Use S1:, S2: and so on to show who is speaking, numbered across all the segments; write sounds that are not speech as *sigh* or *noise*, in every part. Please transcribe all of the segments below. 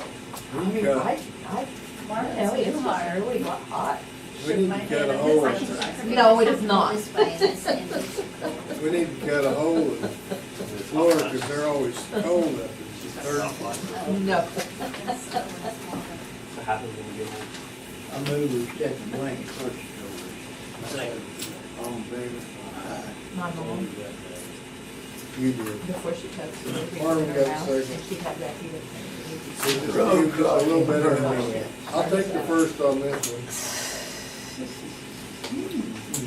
S1: I mean,
S2: Yeah.
S1: I, I, no, it was really hot.
S2: We need to get a hold of,
S3: No, it is not.
S2: we need to get a hold of the floor, because they're always cold up in the third.
S1: No.
S4: What happens when you get home?
S5: I move we set the blank um, purchase
S4: Second.
S5: order. On favor?
S1: My mom,
S2: You do.
S1: before she takes the baby
S2: Marvin
S1: in
S2: got
S1: her house,
S2: second.
S1: and she had that heated.
S2: So just give us a little better than I'll take the first on this one.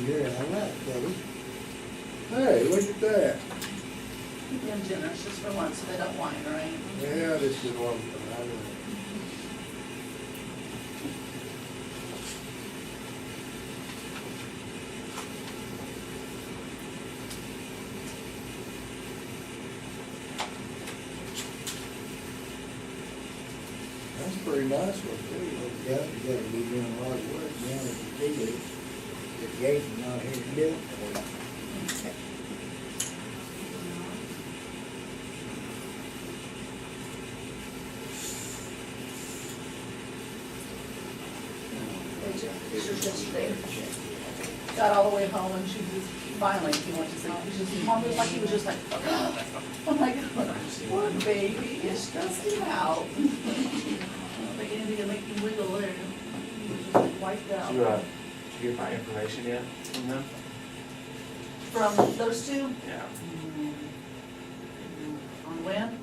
S5: You're all right, buddy.
S2: Hey, look at that.
S6: Keep them generous just for once, so they don't whine, right?
S2: Yeah, this is one. for I know. That's a pretty nice one,
S5: Yeah, you gotta be doing a lot of work now with the TV. The gate's not here to do it for you.
S6: It's just yesterday. Got all the way home and she was finally, he went to sleep. He just, mom was like, he was just like, oh my god, poor baby, it's stressed him out. I don't think anything can make him wiggle there. He was just like wiped
S4: Did you, uh,
S6: out.
S4: did you get my information yet from them?
S6: From those two,
S4: Mm-hmm. Yeah.
S6: on when?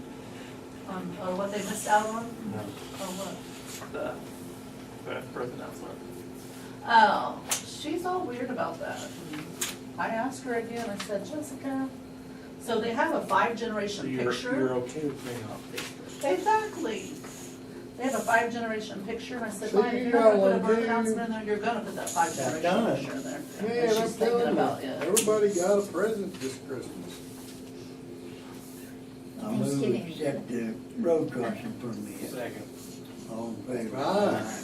S6: On, or what they missed out on,
S4: No,
S6: or what?
S4: the, the birth announcement.
S6: Oh, she's all weird about that. I asked her again, I said, Jessica, so they have a five
S4: So
S6: generation
S4: you're, you're
S6: picture.
S4: okay with being off Facebook?
S6: Exactly. They have a five generation picture, and I said,
S2: So
S6: Maya,
S2: you
S6: you're not gonna
S2: got
S6: put a
S2: one,
S6: birth
S2: dude.
S6: announcement in there, you're gonna put that five generation
S5: done.
S6: picture in there.
S2: Man,
S6: And
S2: I'm
S6: she's thinking
S2: telling
S6: about
S2: you,
S6: it.
S2: everybody got a present this Christmas.
S5: I move we set the road crossing permit.
S4: Second.
S5: All in favor? Ah.
S2: Aye.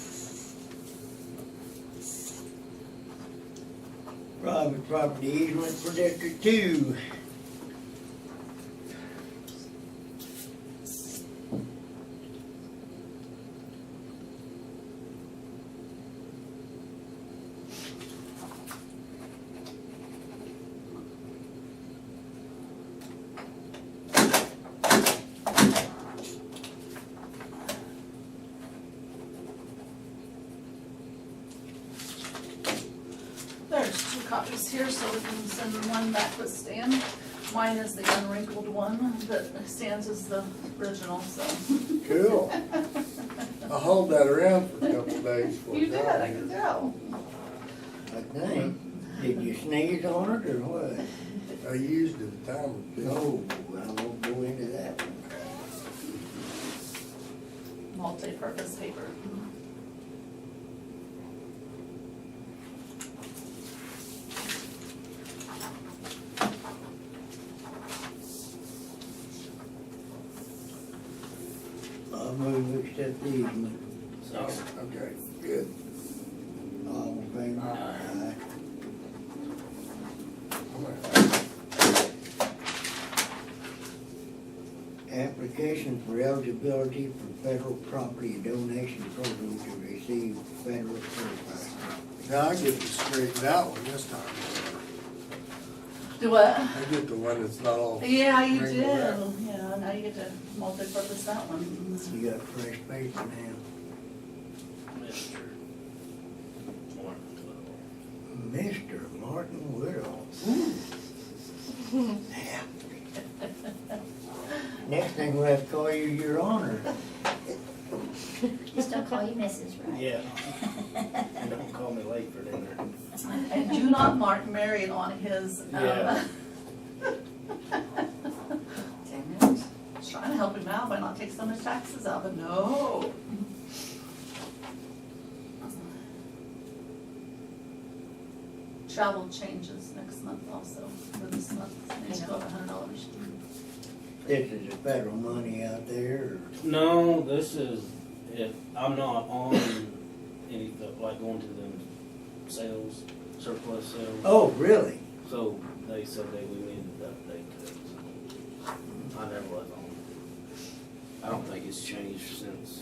S5: Private property easement for District Two.
S6: There's two copies here, so we can send one back with Stan. Mine is the unwrinkled one, but Stan's is the original, so.
S2: Cool. I hauled that around for a couple days before
S6: You
S2: I
S6: did,
S2: got
S6: I can
S2: here.
S6: tell.
S5: I think, did you sneeze on it or what?
S2: I used it a time or two.
S5: No, I won't go into that one.
S6: Multi-purpose paper.
S5: I move we accept the easement.
S4: So,
S2: Okay, good.
S5: All in favor? Aye. Application for eligibility for federal property donation program to receive federal certified.
S2: Now I get to straighten out one this time.
S6: Do what?
S2: I get the one that's not all.
S6: Yeah, you do,
S2: wrinkled out.
S6: yeah, now you get to multi-purpose that one.
S5: You got fresh paper now. Mr. Martin Woodall. Next thing we'll have to call you your honor.
S3: Just don't call you Mrs. Right.
S7: Yeah. And don't call me late for dinner.
S6: And do not mark Marion on his, um. *laughs*
S7: Yeah.
S6: Dang it, I was trying to help him out by not taking so much taxes out, but no. Travel changes next month also, for this month, they go up a hundred dollars.
S5: This is the federal money out there.
S7: No, this is, if I'm not on any, of the- like going to them sales, surplus sales.
S5: Oh, really?
S7: So they said they, we needed to update it. I never was on. I don't think it's changed since.